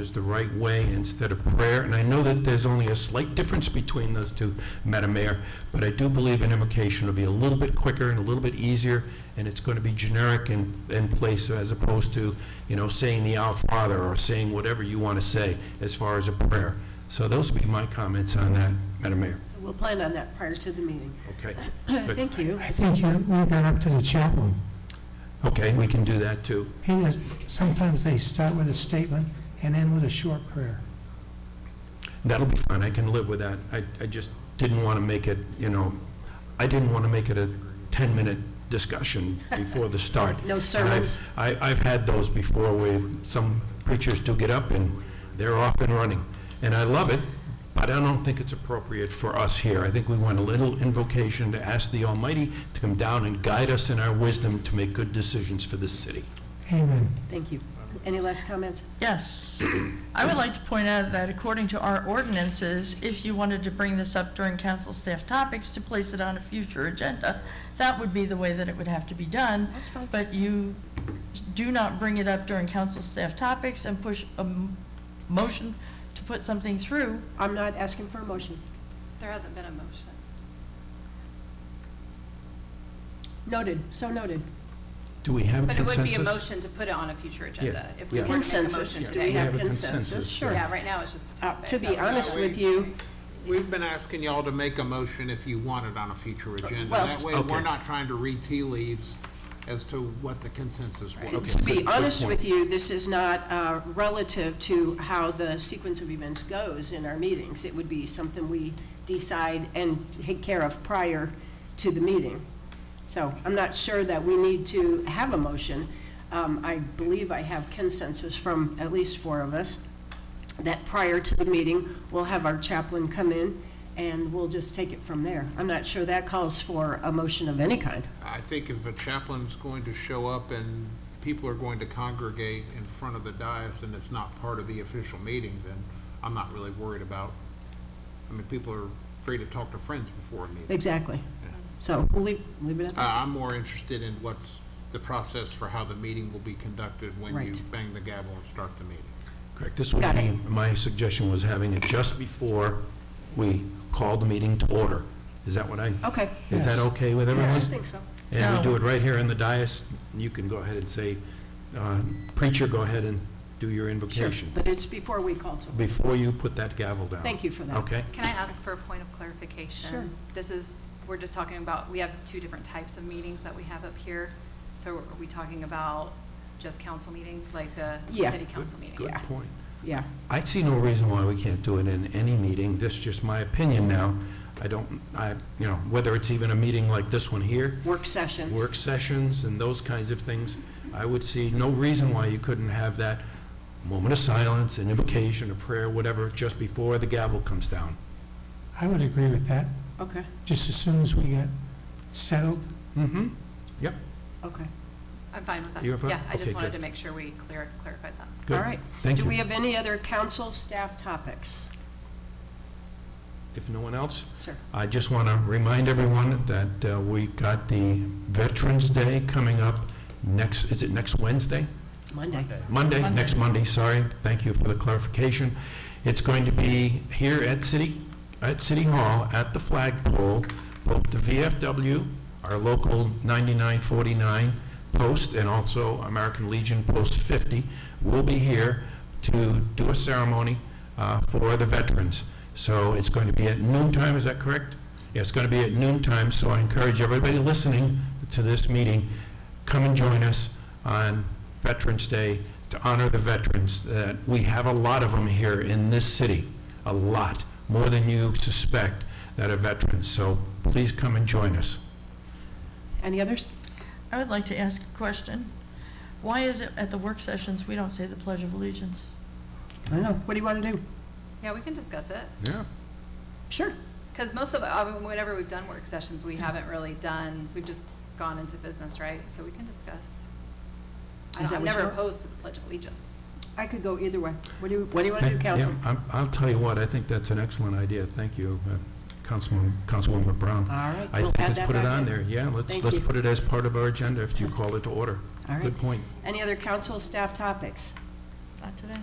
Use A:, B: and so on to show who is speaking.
A: is the right way instead of prayer, and I know that there's only a slight difference between those two, Madam Mayor, but I do believe an invocation will be a little bit quicker and a little bit easier, and it's going to be generic in, in place as opposed to, you know, saying the Our Father or saying whatever you want to say as far as a prayer. So those would be my comments on that, Madam Mayor.
B: So We'll plan on that prior to the meeting.
A: Okay, Good.
B: Thank you.
C: I think you leave that up to the chaplain.
A: okay, we can do that too.
C: He does, sometimes they start with a statement and end with a short prayer.
A: That'll be fine, I can live with that. I, I just didn't want to make it, you know, I didn't want to make it a 10-minute discussion before the start. And
B: No
A: I've-
B: sermons.
A: I, I've had those before where some preachers do get up and they're off and running. And I love it, but I don't think it's appropriate for us here. I think we want a little invocation to ask the Almighty to come down and guide us in our wisdom to make good decisions for this city.
C: Amen.
B: Thank you. Any last comments?
D: Yes. I would like to point out that according to our ordinances, if you wanted to bring this up during council staff topics to place it on a future agenda, that would be the way that it would have to be done. But you do not bring it up during council staff topics and push a m- motion to put something through.
B: I'm not asking for a motion.
E: There hasn't been a motion.
B: Noted, so noted.
A: Do we have a
E: But it
A: consensus?
E: would be a motion to put it on a future agenda if we
A: yeah.
E: were to make a
B: Consensus,
E: motion
B: do we
E: today.
B: have
A: We have a
B: consensus?
A: consensus,
B: Sure.
E: Yeah, right now it's just a
B: Uh,
E: topic.
B: To be
E: That was-
B: honest with you,
F: We've been asking y'all to make a motion if you want it on a future agenda.
B: Uh, well-
F: That way,
A: Okay.
F: we're not trying to read tea leaves as to what the consensus was.
B: to
A: good-
B: be
A: good
B: honest
A: point.
B: with you, this is not uh, relative to how the sequence of events goes in our meetings. It would be something we decide and take care of prior to the meeting. So I'm not sure that we need to have a motion. Um, I believe I have consensus from at least four of us that prior to the meeting, we'll have our chaplain come in and we'll just take it from there. I'm not sure that calls for a motion of any kind.
F: I think if a chaplain's going to show up and people are going to congregate in front of the dais and it's not part of the official meeting, then I'm not really worried about, I mean, people are free to talk to friends before a meeting.
B: Exactly. So we'll leave, leave it at that.
F: I- I'm more interested in what's the process for how the meeting will be conducted when you
B: Right.
F: bang the gavel and start the meeting.
A: Correct, this would
B: Got
A: be,
B: it.
A: my suggestion was having it just before we call the meeting to order. Is that what I,
B: Okay.
A: is that
C: Yes.
A: okay with
B: I
A: everyone?
B: think so.
A: And we
D: No.
A: do it right here in the dais, and you can go ahead and say, uh, preacher, go ahead and do your
B: Sure,
A: invocation,
B: but it's before we call to.
A: before you put that gavel down.
B: Thank you for that.
A: Okay?
E: Can I ask for a point of clarification?
B: Sure.
E: This is, we're just talking about, we have two different types of meetings that we have up here. So are we talking about just council meeting, like the
B: Yeah.
E: city council meeting?
A: Good point.
B: Yeah,
A: I see no reason why we can't do it in any meeting, this is just my opinion now. I don't, I, you know, whether it's even a meeting like this one here,
B: work sessions.
A: work sessions and those kinds of things, I would see no reason why you couldn't have that moment of silence, an invocation, a prayer, whatever, just before the gavel comes down.
C: I would agree with that,
B: Okay,
C: just as soon as we get settled.
A: Mm-hmm.
B: okay.
E: I'm fine with that.
A: You're fine?
E: Yeah, I
A: Okay,
E: just wanted
A: good.
E: to make sure we clear, clarified that.
A: Good.
B: All right.
A: Thank
B: Do we
A: you.
B: have any other council staff topics?
A: If no one else,
B: Sir?
A: I just want to remind everyone that uh, we got the Veterans Day coming up next, is it next Wednesday?
B: Monday.
A: Monday,
D: Monday.
A: next Monday, sorry. Thank you for the clarification. It's going to be here at City, at City Hall, at the flagpole, both the VFW, our local 9949 post, and also American Legion Post 50 will be here to do a ceremony uh, for the veterans. So it's going to be at noon time, is that correct? Yeah, it's going to be at noon time, so I encourage everybody listening to this meeting, come and join us on Veterans Day to honor the veterans. That we have a lot of them here in this city, a lot, more than you suspect that are veterans. So please come and join us.
B: Any others?
D: I would like to ask a question. Why is it at the work sessions, we don't say the Pledge of Allegiance?
B: I don't know. What do you want to do?
E: Yeah, we can discuss it.
A: Yeah.
B: Sure.
E: Because most of, I mean, whenever we've done work sessions,
B: Mm-hmm.
E: we haven't really done, we've just gone into business, right? So we can discuss. I
B: Is
E: don't-
B: that what
E: I'm
B: you
E: never
B: want?
E: opposed to the Pledge of Allegiance.
B: I could go either way. What do you, what do you want to do, council?
A: I'll tell you what, I think that's an excellent idea. Thank you, uh, Councilwoman, Councilwoman Brown.
B: All right,
A: I
B: Uh, we'll
A: think
B: add
A: let's
B: that
A: put it
B: back
A: on
B: in.
A: there. Yeah, let's,
B: Thank
A: let's
B: you.
A: put it as part of our agenda if you call it to order.
B: All right.
A: Good point.
B: Any other council staff topics?
D: Not today.